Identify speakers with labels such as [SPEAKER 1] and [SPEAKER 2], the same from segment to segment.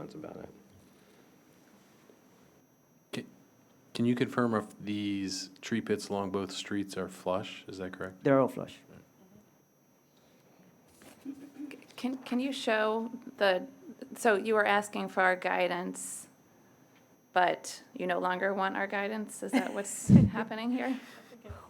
[SPEAKER 1] that's about it.
[SPEAKER 2] Ca- Can you confirm if these tree pits along both streets are flush? Is that correct?
[SPEAKER 3] They're all flush.
[SPEAKER 4] Can, can you show the, so you were asking for our guidance, but you no longer want our guidance? Is that what's happening here?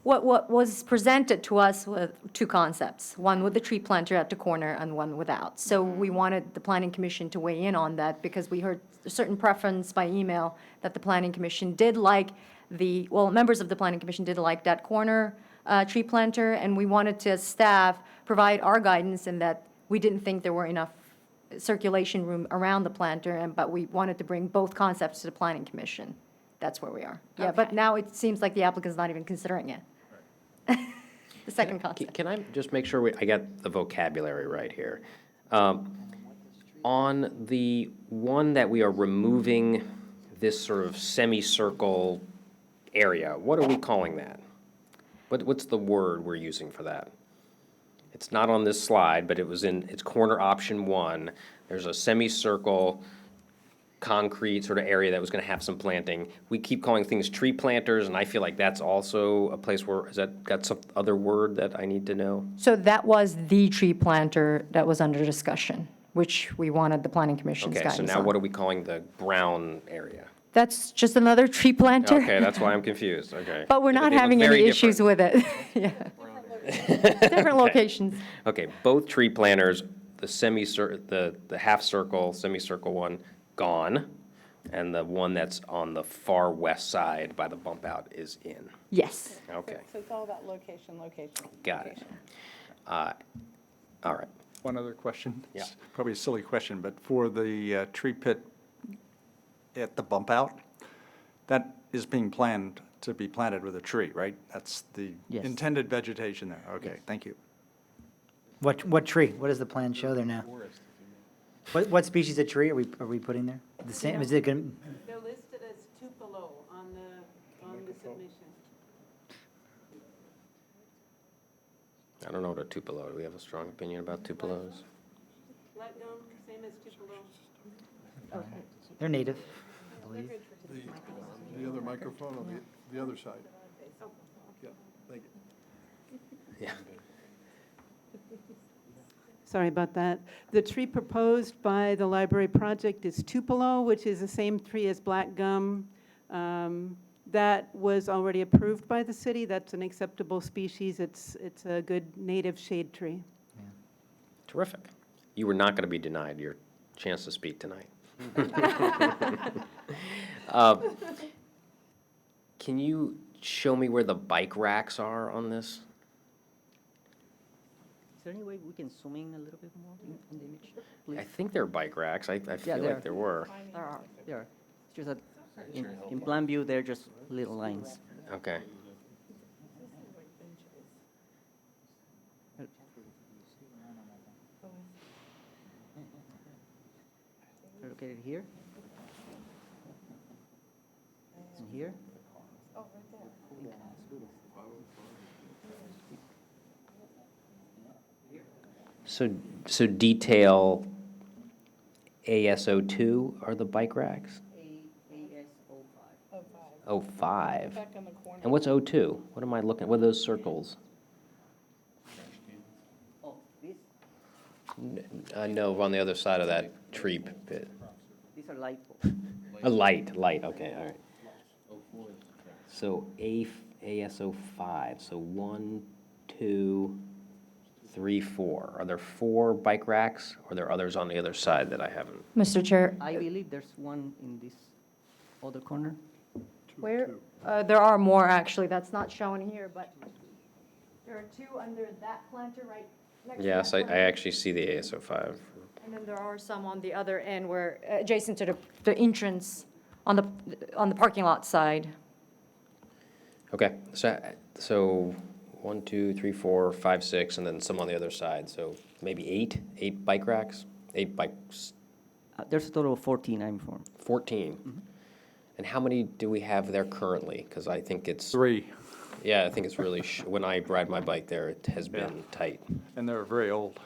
[SPEAKER 5] What, what was presented to us were two concepts, one with the tree planter at the corner and one without. So we wanted the planning commission to weigh in on that because we heard a certain preference by email that the planning commission did like the, well, members of the planning commission did like that corner uh, tree planter, and we wanted to, as staff, provide our guidance in that we didn't think there were enough circulation room around the planter, and, but we wanted to bring both concepts to the planning commission. That's where we are. Yeah, but
[SPEAKER 4] Okay.
[SPEAKER 5] now it seems like the applicant's not even considering it. The second
[SPEAKER 6] Can-
[SPEAKER 5] concept.
[SPEAKER 6] Can I just make sure we, I got the vocabulary right here? Um, On the one that we are removing this sort of semicircle area, what are we calling that? What, what's the word we're using for that? It's not on this slide, but it was in, it's corner option one. There's a semicircle concrete sort of area that was gonna have some planting. We keep calling things tree planters, and I feel like that's also a place where, has that got some other word that I need to know?
[SPEAKER 5] So that was the tree planter that was under discussion, which we wanted the planning commission's
[SPEAKER 6] Okay,
[SPEAKER 5] guidance
[SPEAKER 6] so now what
[SPEAKER 5] on.
[SPEAKER 6] are we calling the brown area?
[SPEAKER 5] That's just another tree planter.
[SPEAKER 6] Okay, that's why I'm confused, okay.
[SPEAKER 5] But we're
[SPEAKER 6] They-
[SPEAKER 5] not
[SPEAKER 6] they look
[SPEAKER 5] having any
[SPEAKER 6] very
[SPEAKER 5] issues
[SPEAKER 6] different.
[SPEAKER 5] with it. Yeah. Different locations.
[SPEAKER 6] Okay, both tree planters, the semicir, the, the half circle, semicircle one, gone, and the one that's on the far west side by the bump out is in.
[SPEAKER 5] Yes.
[SPEAKER 6] Okay,
[SPEAKER 7] So it's all about location, location.
[SPEAKER 6] got it.
[SPEAKER 7] location.
[SPEAKER 6] Uh, All right.
[SPEAKER 8] One other question.
[SPEAKER 6] Yeah.
[SPEAKER 8] It's Probably a silly question, but for the uh, tree pit at the bump out, that is being planned to be planted with a tree, right? That's the
[SPEAKER 3] Yes.
[SPEAKER 8] intended vegetation there. Okay, thank you.
[SPEAKER 9] What, what tree? What does the plan show there now? What, what species of tree are we, are we putting there? The same, is it gonna,
[SPEAKER 7] They're listed as Tupelo on the, on the submission.
[SPEAKER 6] I don't know what a Tupelo, do we have a strong opinion about Tupelos?
[SPEAKER 7] Latgum, same as Tupelo.
[SPEAKER 9] they're native, I believe.
[SPEAKER 10] The other microphone on the, the other side. Yeah, thank you.
[SPEAKER 6] Yeah.
[SPEAKER 7] Sorry about that. The tree proposed by the library project is Tupelo, which is the same tree as black gum. Um, That was already approved by the city. That's an acceptable species. It's, it's a good native shade tree.
[SPEAKER 6] Terrific. You were not going to be denied your chance to speak tonight. Um, Can you show me where the bike racks are on this?
[SPEAKER 11] Is there any way we can zoom in a little bit more in in the image?
[SPEAKER 6] I
[SPEAKER 11] Please,
[SPEAKER 6] think they're bike racks. I, I feel
[SPEAKER 11] they're-
[SPEAKER 6] like there were.
[SPEAKER 5] There are.
[SPEAKER 11] there are, just that, in, in plan view, they're just little lines.
[SPEAKER 6] Okay.
[SPEAKER 11] They're Located here. And here.
[SPEAKER 6] So, so detail ASO two are the bike racks? Oh, five.
[SPEAKER 7] on the corner.
[SPEAKER 6] And what's O two? What am I looking, what are those circles?
[SPEAKER 11] Oh, these,
[SPEAKER 6] Uh, no, on the other side of that tree pit.
[SPEAKER 11] these are light poles.
[SPEAKER 6] A light, light, okay, all right. So A, ASO five, so one, two, three, four. Are there four bike racks, or are there others on the other side that I haven't?
[SPEAKER 5] Mr. Chair,
[SPEAKER 11] I believe there's one in this other corner.
[SPEAKER 5] Where, uh, there are more, actually, that's not shown here, but there are two under that planter right next to that
[SPEAKER 6] Yes, I, I
[SPEAKER 5] planter.
[SPEAKER 6] actually see the ASO five.
[SPEAKER 5] And then there are some on the other end where, adjacent to the, the entrance on the, on the parking lot side.
[SPEAKER 6] Okay, so, so one, two, three, four, five, six, and then some on the other side, so maybe eight, eight bike racks? Eight bikes,
[SPEAKER 11] Uh, There's a total of 14 I'm informed.
[SPEAKER 6] 14. And how many do we have there currently? Because I think it's,
[SPEAKER 8] Three,
[SPEAKER 6] yeah, I think it's really, sh- when I ride my bike there, it has been tight.
[SPEAKER 8] and they're very old.